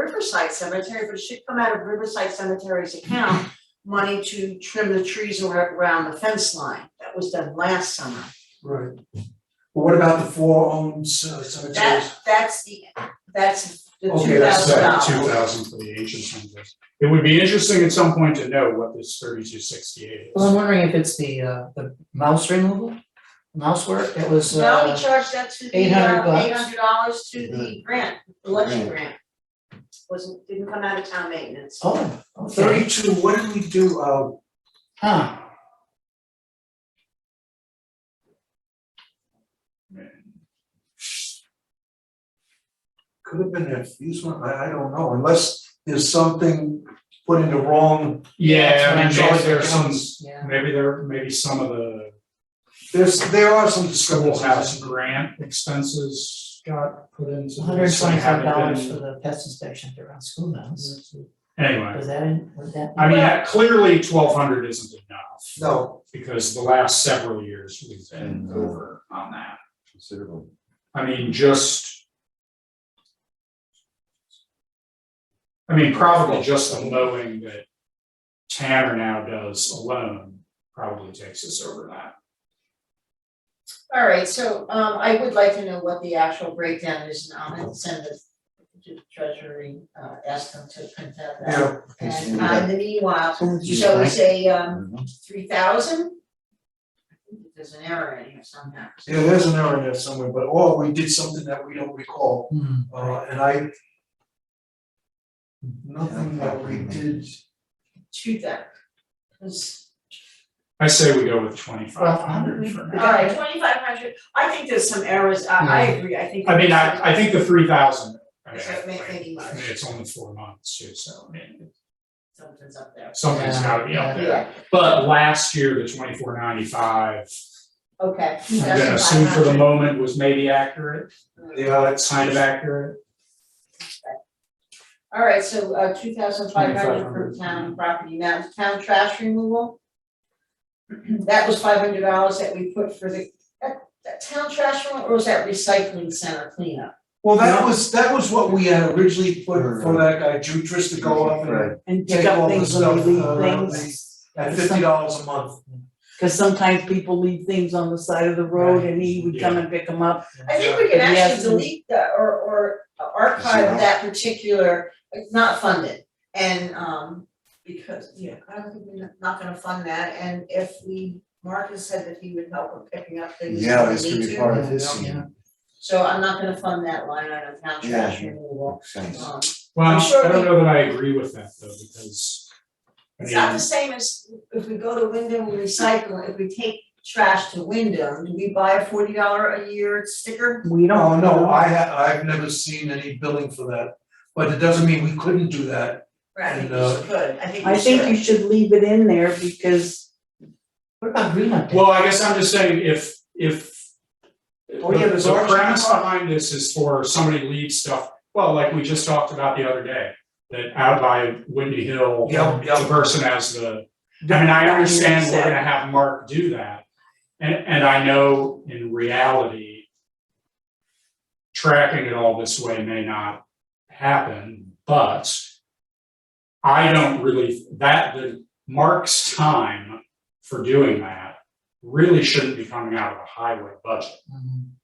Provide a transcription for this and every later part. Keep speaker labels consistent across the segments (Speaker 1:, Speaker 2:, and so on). Speaker 1: Riverside Cemetery, but it should come out of Riverside Cemetery's account, money to trim the trees ar- around the fence line, that was done last summer.
Speaker 2: Right. But what about the four owned c- cemeteries?
Speaker 1: That, that's the, that's the
Speaker 2: Okay,
Speaker 1: two
Speaker 2: that's
Speaker 1: thousand dollars.
Speaker 2: that,
Speaker 3: Two thousand for the ancient cemeteries. It would be interesting at some point to know what this thirty-two sixty-eight
Speaker 4: Well, I'm
Speaker 3: is.
Speaker 4: wondering if it's the uh the mouse removal, mouse work, that was
Speaker 1: No,
Speaker 4: uh,
Speaker 1: he charged that to the, eight
Speaker 4: $800 bucks.
Speaker 1: hundred dollars to the grant, the election grant. Wasn't, didn't come out of town maintenance.
Speaker 4: oh, okay,
Speaker 2: Thirty-two, what did we do, uh,
Speaker 4: huh,
Speaker 2: could have been a used one, I, I don't know, unless there's something put in the wrong,
Speaker 3: Yeah, I mean,
Speaker 4: That's what
Speaker 3: maybe there are
Speaker 4: I'm
Speaker 3: some,
Speaker 4: trying to yeah,
Speaker 3: maybe there, maybe some of the
Speaker 2: there's, there are some
Speaker 3: schoolhouse
Speaker 2: discrepancies.
Speaker 3: grant expenses got put into this.
Speaker 4: hundred and twenty five dollars for
Speaker 3: and haven't
Speaker 4: the pest inspections around schoolhouse,
Speaker 3: been- Anyway,
Speaker 4: was that in, was that?
Speaker 3: I mean, that- clearly twelve hundred isn't enough,
Speaker 2: No,
Speaker 3: because the last several years we've been over on that.
Speaker 5: Considerable.
Speaker 3: I mean, just. I mean, probably just the mowing that Tanner now does alone probably takes us over that.
Speaker 1: All right, so um I would like to know what the actual breakdown is, and I'm gonna send it to the treasury, uh ask them to print that out.
Speaker 2: yeah,
Speaker 1: And uh, in the meanwhile,
Speaker 5: Just
Speaker 1: shall we say um
Speaker 5: Mhm.
Speaker 1: three thousand? There's an error in here somehow.
Speaker 2: yeah, there's an error in there somewhere, but, or we did something that we don't recall,
Speaker 4: Hmm,
Speaker 2: uh, and I. Nothing that we did,
Speaker 1: Two thousand. Cause,
Speaker 3: I say we go with twenty five hundred for
Speaker 1: all
Speaker 3: now.
Speaker 1: right, twenty five hundred, I think there's some errors, I I agree, I think.
Speaker 3: I mean, I I think the three thousand. I mean,
Speaker 1: Is that ma-
Speaker 3: I mean,
Speaker 1: making much?
Speaker 3: it's only four months too, so I mean,
Speaker 1: Something's up there.
Speaker 3: something's
Speaker 4: Yeah,
Speaker 3: gotta be up
Speaker 4: yeah.
Speaker 3: there. But last year, the twenty four ninety five,
Speaker 1: Okay, two
Speaker 3: I'm gonna assume for the moment was maybe accurate,
Speaker 2: yeah, it's,
Speaker 3: kind of accurate.
Speaker 1: All right, so uh two thousand five hundred for
Speaker 3: 2,500.
Speaker 1: town property, now town trash removal. That was five hundred dollars that we put for the, that that town trash removal, or was that recycling center cleanup?
Speaker 2: well, that was, that was what we had originally put for that guy, Jutris to go up and
Speaker 5: Right.
Speaker 6: And
Speaker 2: take
Speaker 6: pick up
Speaker 2: all the
Speaker 6: things when
Speaker 2: stuff,
Speaker 6: we
Speaker 2: uh,
Speaker 6: leave
Speaker 2: the-
Speaker 6: things,
Speaker 2: at fifty dollars a month.
Speaker 6: cause sometimes people leave things on the side of the road and he would come and pick them up.
Speaker 1: I think we can
Speaker 6: Yeah.
Speaker 1: actually
Speaker 6: Yes.
Speaker 1: delete the, or or archive
Speaker 5: Zero.
Speaker 1: that particular, it's not funded, and um. Because, yeah, I don't think we're not gonna fund that, and if we, Marcus said that he would help with picking up things
Speaker 5: Yeah,
Speaker 1: when we
Speaker 5: this could
Speaker 1: need
Speaker 5: be
Speaker 1: to,
Speaker 5: part of his
Speaker 4: Yeah.
Speaker 5: scene.
Speaker 1: So I'm not gonna fund that line item, town trash
Speaker 5: Yeah.
Speaker 1: removal.
Speaker 5: Makes sense.
Speaker 1: Um,
Speaker 3: Well,
Speaker 1: I'm sure
Speaker 3: I don't
Speaker 1: we-
Speaker 3: know that I agree with that though, because. I
Speaker 1: It's not
Speaker 3: mean,
Speaker 1: the same as if we go to Wyndham, we recycle, if we take trash to Wyndham, do we buy a forty dollar a year sticker?
Speaker 6: We don't.
Speaker 2: Oh, no, I ha- I've never seen any billing for that, but it doesn't mean we couldn't do that.
Speaker 1: Right, I think
Speaker 2: No.
Speaker 1: we should, I think we
Speaker 6: I think you should leave it in there because
Speaker 4: what about Green Up Day?
Speaker 3: Well, I guess I'm just saying if if.
Speaker 2: Oh, yeah, there's
Speaker 3: The
Speaker 2: our-
Speaker 3: premise behind this is for somebody to leave stuff, well, like we just talked about the other day, that out by Windy Hill.
Speaker 2: Yeah, yeah.
Speaker 3: The person has the, I mean, I understand we're gonna have Mark do that. And and I know in reality. Tracking it all this way may not happen, but. I don't really, that the Mark's time for doing that really shouldn't be coming out of the highway budget.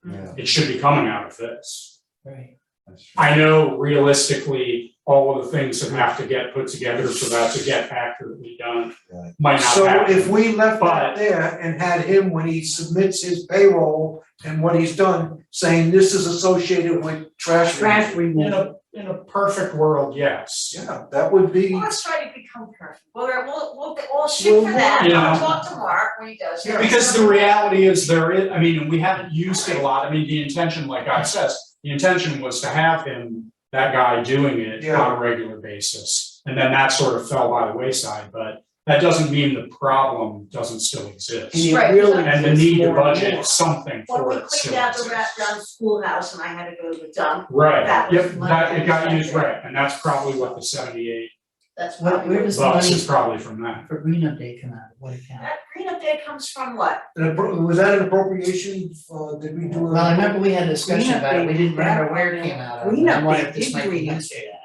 Speaker 4: Mhm,
Speaker 5: Yeah,
Speaker 3: It should be coming out of this.
Speaker 4: Right,
Speaker 5: that's true.
Speaker 3: I know realistically, all of the things that have to get put together for that to get accurately done
Speaker 5: Right.
Speaker 3: might not
Speaker 2: So
Speaker 3: happen.
Speaker 2: if we left that
Speaker 3: But-
Speaker 2: there and had him, when he submits his payroll and what he's done, saying this is associated with trash.
Speaker 6: trash
Speaker 2: removal.
Speaker 3: In
Speaker 6: removal,
Speaker 3: a, in a perfect world, yes.
Speaker 2: Yeah, that would be,
Speaker 1: Well, Let's try to become perfect, we'll, we'll, we'll, we'll shoot for that,
Speaker 3: Yeah.
Speaker 1: I'll talk to Mark when he does it.
Speaker 3: Because the reality is there is, I mean, and we haven't used it a lot, I mean, the intention, like I says, the intention was to have him, that guy doing it on
Speaker 2: Yeah.
Speaker 3: a regular basis. And then that sort of fell by the wayside, but that doesn't mean the problem doesn't still
Speaker 6: and
Speaker 3: exist.
Speaker 6: it
Speaker 1: Right.
Speaker 6: really
Speaker 3: And the
Speaker 6: is
Speaker 3: need to
Speaker 6: more and
Speaker 3: budget
Speaker 6: more.
Speaker 1: When
Speaker 3: something for
Speaker 1: we
Speaker 3: it still
Speaker 1: cleaned out the wrap
Speaker 3: exists.
Speaker 1: down schoolhouse and I had to go to the dump, That
Speaker 3: Right,
Speaker 1: was
Speaker 3: yep,
Speaker 1: my
Speaker 3: that, it got used,
Speaker 1: understanding.
Speaker 3: right, and that's probably what the seventy-eight
Speaker 1: that's
Speaker 4: Where-
Speaker 1: probably.
Speaker 4: where does-
Speaker 3: bucks
Speaker 4: money-
Speaker 3: is probably from that.
Speaker 4: for Green Up Day come out, of what account?
Speaker 1: That green up there comes from what?
Speaker 2: an appro- was that an appropriation, uh, did we do? a-
Speaker 4: Well, I remember we had a discussion about it, we didn't remember where it came out of,
Speaker 6: Green
Speaker 4: and
Speaker 6: Up
Speaker 4: I'm
Speaker 6: Day,
Speaker 4: like, this
Speaker 6: did
Speaker 4: might be
Speaker 6: Green Up
Speaker 4: used for that.